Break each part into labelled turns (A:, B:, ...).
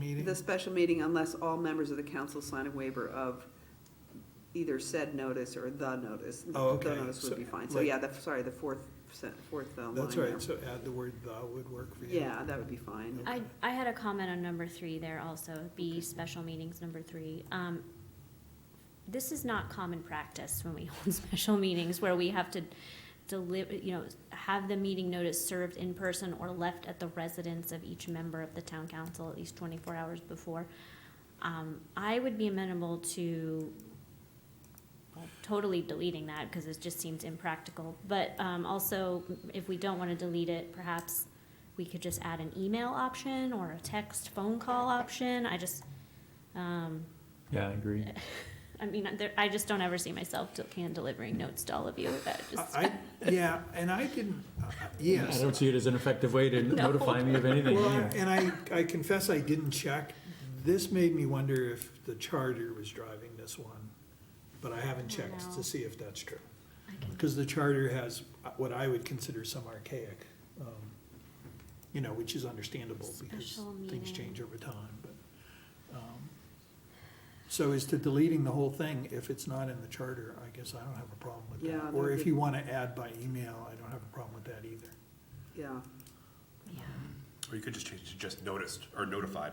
A: the special meeting unless all members of the council sign a waiver of either said notice or the notice.
B: Oh,
A: The
B: okay.
A: notice
B: So,
A: would be fine. So,
B: like-
A: yeah, the, sorry, the fourth, sen- fourth uh, line
B: That's
A: there.
B: right, so add the word "the" would work for you.
A: Yeah, that would be fine.
B: Okay.
C: I, I had a comment on number three there also, B, special meetings, number three. Um, This is not common practice when we hold special meetings where we have to deliver, you know, have the meeting notice served in person or left at the residence of each member of the town council at least twenty-four hours before. Um, I would be amenable to well, totally deleting that because it just seems impractical. But um, also, if we don't want to delete it, perhaps we could just add an email option or a text phone call option. I just, um,
D: Yeah, I agree.
C: I mean, there, I just don't ever see myself del- can delivering notes to all of you. That just
B: I, I- yeah, and I didn't, uh, yes.
D: I don't see it as an effective way to
C: No.
D: notify me of anything
B: Well,
D: either.
B: and I, I confess I didn't check. This made me wonder if the charter was driving this one, but I haven't
C: I don't
B: checked
C: know.
B: to see if that's true.
C: I can,
B: Because the charter has what I would consider some archaic, um, you know, which is understandable because
C: Special
B: things
C: meeting.
B: change over time, but. um, So as to deleting the whole thing, if it's not in the charter, I guess I don't have a problem with
A: Yeah,
B: that. Or
A: that'd
B: if
A: be-
B: you want to add by email, I don't have a problem with that either.
A: Yeah.
C: yeah.
E: Or you could just change it to just noticed or notified.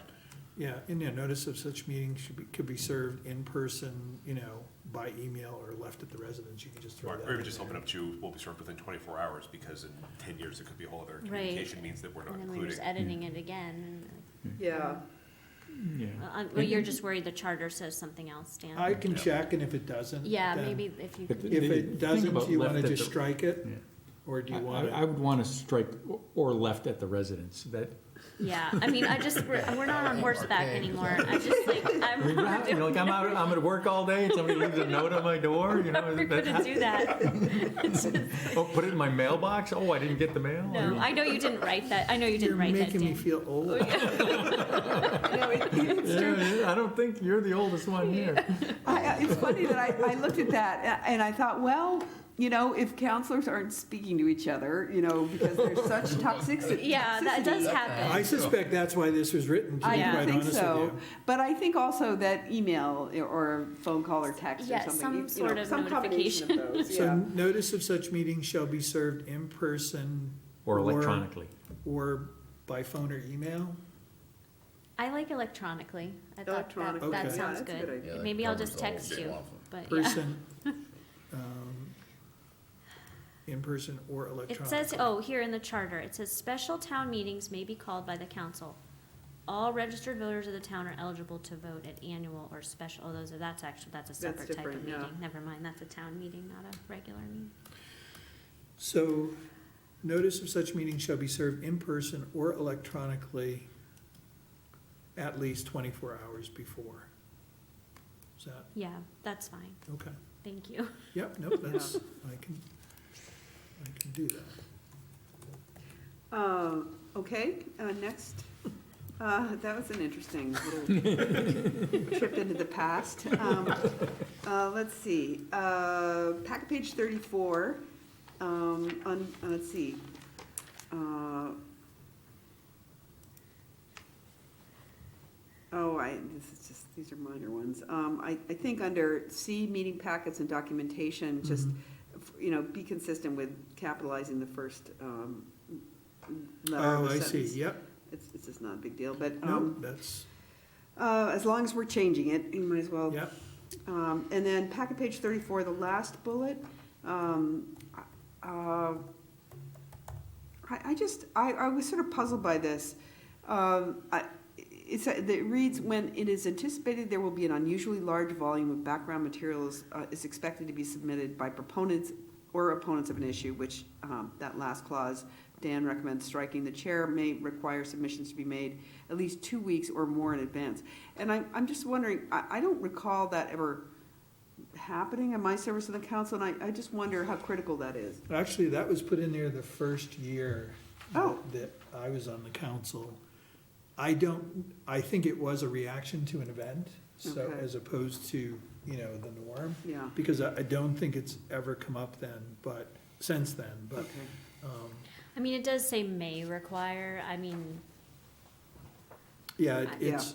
B: Yeah, and yeah, notice of such meeting should be, could be served in person, you know, by email or left at the residence, you can just throw
E: Or
B: that.
E: or even
B: in
E: just
B: there.
E: open up to, will be served within twenty-four hours, because in ten years, it could be a whole other
C: Right.
E: communication means that we're not
C: And then we're
E: including.
C: just editing it again.
A: Yeah,
D: Yeah.
C: and, uh, uh, Well, you're just worried the charter says something else,
B: I
C: Dan.
B: can check, and if it doesn't.
C: Yeah,
B: then-
C: maybe if you
D: But
C: could,
B: If
D: Maybe
B: it
D: think
B: doesn't,
D: about
B: do you
D: left
B: wanna
D: at
B: just
D: the-
B: strike it,
D: yeah.
B: or do
D: I,
B: you want
D: I- I
B: it?
D: would want to strike or- or left at the residence, that,
C: yeah, I mean, I just, we're, we're not on horseback
F: Okay.
C: anymore. I'm just like,
D: I mean,
C: I'm not
D: you know, like, I'm out, I'm at work all day, and somebody leaves a note on my door, you know,
C: ever
D: that-
C: gonna do that.
D: oh, put it in my mailbox, oh, I didn't get the mail?
C: No, I know you didn't write that. I know you
B: You're
C: didn't write that, Oh,
B: making me
C: Dan.
B: feel old.
A: I know, it- it's
D: Yeah,
A: true.
D: yeah, I don't think you're the oldest one here.
A: I- I- It's funny that I, I looked at that a- and I thought, well, you know, if counselors aren't speaking to each other, you know, because there's such toxic.
C: Yeah, that does
A: toxicity,
B: I
C: happen.
B: suspect that's why this was written, to be
A: I
C: Yeah.
B: quite
A: do think
B: honest with
A: so,
B: you.
A: but I think also that email or phone call or text or
C: Yeah, some
A: something, you- you
C: sort
A: know,
C: of
A: some combination of those,
B: So
A: yeah.
B: notice of such meetings shall be served in person.
D: Or electronically.
B: Or by phone or email?
C: I like electronically. I thought
A: Electronic,
C: that,
B: Okay.
C: that
A: yeah,
C: sounds
A: that's a
C: good.
A: idea.
F: Yeah, that
C: Maybe I'll
F: covers
C: just
F: all of
C: text
F: them.
C: you,
F: All of them.
C: but yeah.
B: person, um, in person or electronic.
C: It says, oh, here in the charter, it says special town meetings may be called by the council. All registered voters of the town are eligible to vote at annual or special, oh, those are, that's actually, that's a separate type of
A: different, yeah.
C: meeting. Never mind, that's a town meeting, not a regular meeting.
B: So, notice of such meeting shall be served in person or electronically at least twenty-four hours before. Is that,
C: Yeah, that's fine.
B: okay,
C: Thank you.
B: yep, nope, that's, I can, I can do that.
A: Uh, okay, uh, next, uh, that was an interesting little trip into the past. Um, uh, let's see, uh, packet page thirty-four, um, on, uh, let's see. Uh, Oh, I, this is just, these are minor ones. Um, I, I think under C, meeting packets and
B: Mm-hmm.
A: documentation, just, you know, be consistent with capitalizing the first, um, letter of
B: Oh,
A: the
B: I see,
A: sentence.
B: yep,
A: It's, it's just not a big deal, but,
B: nope,
A: um,
B: that's,
A: uh, as long as we're changing it, you might as well
B: yep,
A: um, and then packet page thirty-four, the last bullet, um, uh, I, I just, I, I was sort of puzzled by this. Um, I, it's, it reads, when it is anticipated there will be an unusually large volume of background materials, uh, is expected to be submitted by proponents or opponents of an issue, which, um, that last clause, Dan recommends striking, the chair may require submissions to be made at least two weeks or more in advance. And I'm, I'm just wondering, I, I don't recall that ever happening in my service in the council, and I, I just wonder how critical that is.
B: actually, that was put in there the first year
A: Oh.
B: that I was on the council. I don't, I think it was a reaction to an event, so,
A: Okay.
B: as opposed to, you know, the norm.
A: Yeah,
B: because I, I don't think it's ever come up then, but, since then, but,
A: okay.
B: um,
C: I mean, it does say may require, I mean,
B: yeah,
C: Yeah.
B: it- it's,